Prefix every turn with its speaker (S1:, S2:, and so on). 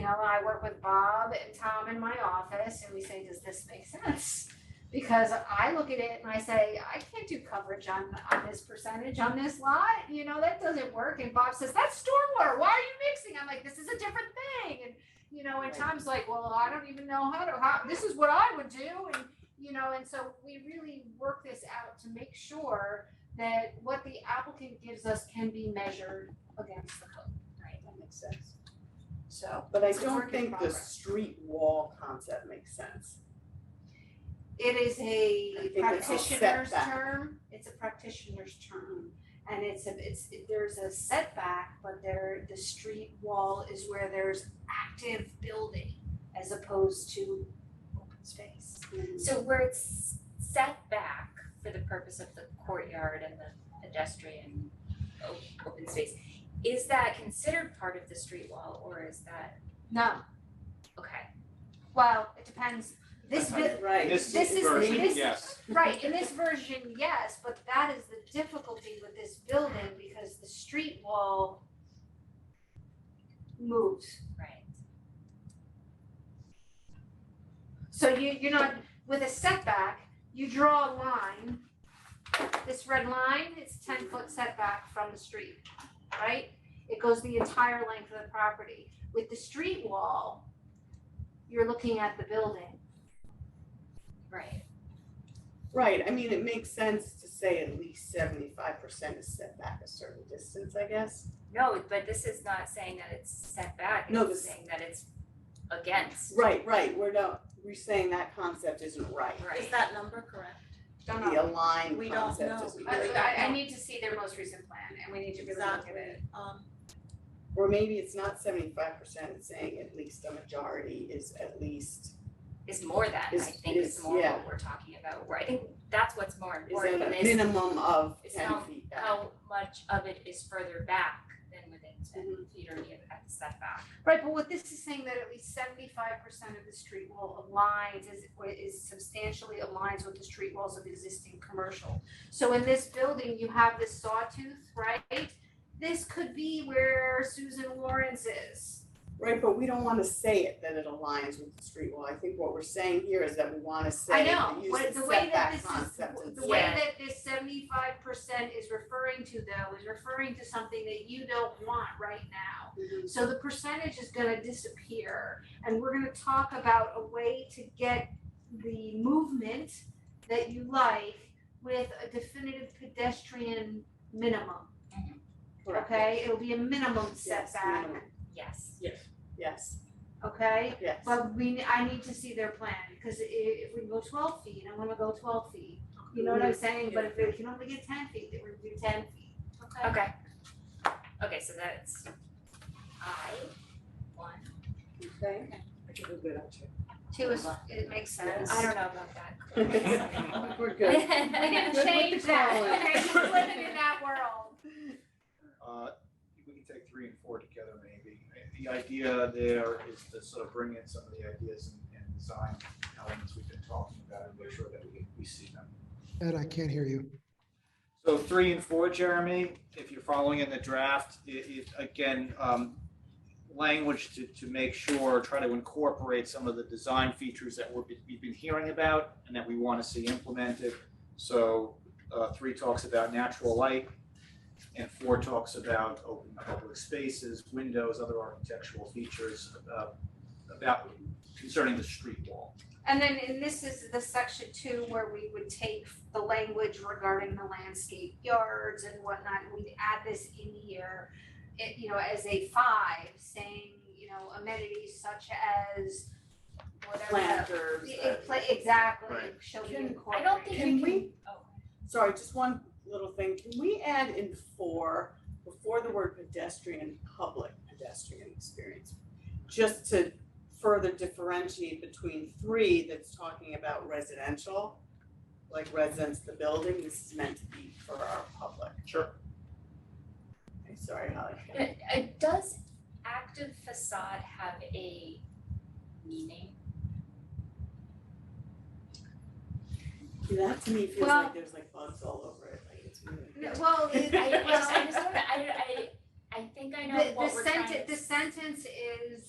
S1: know, I work with Bob and Tom in my office and we say, does this make sense? Because I look at it and I say, I can't do coverage on, on this percentage on this lot, you know, that doesn't work. And Bob says, that's stormwater, why are you mixing? I'm like, this is a different thing. And, you know, and
S2: Right.
S1: Tom's like, well, I don't even know how to, how, this is what I would do. And, you know, and so we really work this out to make sure that what the applicant gives us can be measured against the code, right?
S2: That makes sense.
S1: So.
S2: But I
S1: It's a work
S2: don't
S1: in
S2: think the
S1: progress.
S2: street wall concept makes sense.
S1: It is
S2: I think
S1: a
S2: it's all
S1: practitioner's
S2: setback.
S1: term, it's a practitioner's term. And it's a, it's, there's a setback, but there, the street wall is where there's active building as opposed to open space.
S3: So where it's set back for the purpose of the courtyard and the pedestrian o- open space, is that considered part of the street wall or is that,
S1: No,
S3: okay,
S1: well, it depends, this,
S2: Right,
S1: bit-
S2: Right.
S4: This
S1: This is-
S4: version,
S1: this-
S4: yes.
S1: right, in this version, yes, but that is the difficulty with this building because the street wall moves.
S3: right?
S1: So you, you're not, with a setback, you draw a line. This red line is ten foot setback from the street, right? It goes the entire length of the property. With the street wall, you're looking at the building.
S3: Right.
S2: Right, I mean, it makes sense to say at least seventy-five percent is set back a certain distance, I guess.
S3: No, but this is not saying that it's set back,
S2: No,
S3: it's
S2: this-
S3: saying that it's against,
S2: Right, right, we're not, we're saying that concept isn't right.
S3: right?
S5: that number correct?
S1: Don't know.
S2: The aligned
S5: We don't
S2: concept
S5: know.
S2: isn't
S1: I,
S2: right.
S1: I- I need to see their most recent plan and we need to really look at it.
S5: Um,
S2: Or maybe it's not seventy-five percent, it's saying at least a majority is at least,
S3: Is more than, I
S2: Is-
S3: think is
S2: is-
S3: more
S2: yeah.
S3: what we're talking about, where I think that's what's more
S2: is at
S3: important
S2: a
S3: is
S2: minimum of
S3: It's
S2: ten
S3: not
S2: feet back.
S3: how much of it is further back than within ten
S2: Mhm.
S3: feet or near at the setback.
S1: Right, but what this is saying that at least seventy-five percent of the street wall aligns, is, is substantially aligns with the street walls of existing commercial. So in this building, you have this sawtooth, right? This could be where Susan Lawrence is.
S2: Right, but we don't wanna say it that it aligns with the street wall, I think what we're saying here is that we wanna
S1: I
S2: say,
S1: know,
S2: use
S1: what,
S2: the
S1: the way that
S2: setback
S1: this
S2: concept
S1: is, the
S2: instead.
S1: way
S3: Yeah.
S1: that this seventy-five percent is referring to though, is referring to something that you don't want right now.
S2: Mhm.
S1: So the percentage is gonna disappear and we're gonna talk about a way to get the movement that you like with a definitive pedestrian minimum,
S2: Correct.
S1: okay? It'll be a minimum
S2: Yes,
S1: setback,
S2: minimum.
S3: Yes.
S2: Yes,
S1: okay?
S2: yes.
S1: But we, I need to see their plan, cause i- if we go twelve feet, I'm gonna go twelve feet, you know what I'm saying? But if we can only get ten feet, then we do ten feet, okay?
S3: Okay. Okay, so that's I one.
S2: Okay.
S1: Two is, it makes sense.
S3: I don't know about that.
S2: We're good.
S1: We can
S2: Good with
S1: change
S2: the
S1: that,
S2: collar.
S1: okay, we're living in that world.
S4: Uh, we can take three and four together maybe. The idea there is to sort of bring in some of the ideas and, and design elements we've been talking about and make sure that we, we see them.
S6: Ed, I can't hear you.
S4: So three and four, Jeremy, if you're following in the draft, i it, again, um, language to, to make sure, try to incorporate some of the design features that we're, we've been hearing about and that we want to see implemented. So, uh, three talks about natural light and four talks about open public spaces, windows, other architectural features, uh, about concerning the street wall.
S1: And then, and this is the section two where we would take the language regarding the landscape yards and whatnot, and we'd add this in here. It, you know, as a five, saying, you know, amenities such as whatever.
S2: Planters.
S1: It-
S2: uh,
S1: it pla- Exactly,
S4: Right.
S1: shall be
S2: Can- I
S3: I
S1: incorporated.
S3: don't think
S2: Can
S3: we
S2: we,
S3: can, oh,
S2: sorry, just one little thing, can we add in four, before the word pedestrian, public pedestrian experience? Just to further differentiate between three that's talking about residential, like residents, the building, this is meant to be for our public.
S4: Sure.
S2: Okay, Sorry, Holly.
S3: It- it- Uh, does active facade have a meaning?
S2: That to me feels
S1: Well-
S2: like there's like bugs all over it, like it's moving.
S1: No, Well,
S3: I
S1: it-
S3: I
S1: well,
S3: just I just don't I I I think I know
S1: the, the
S3: what we're trying to
S1: sentence, the sentence is,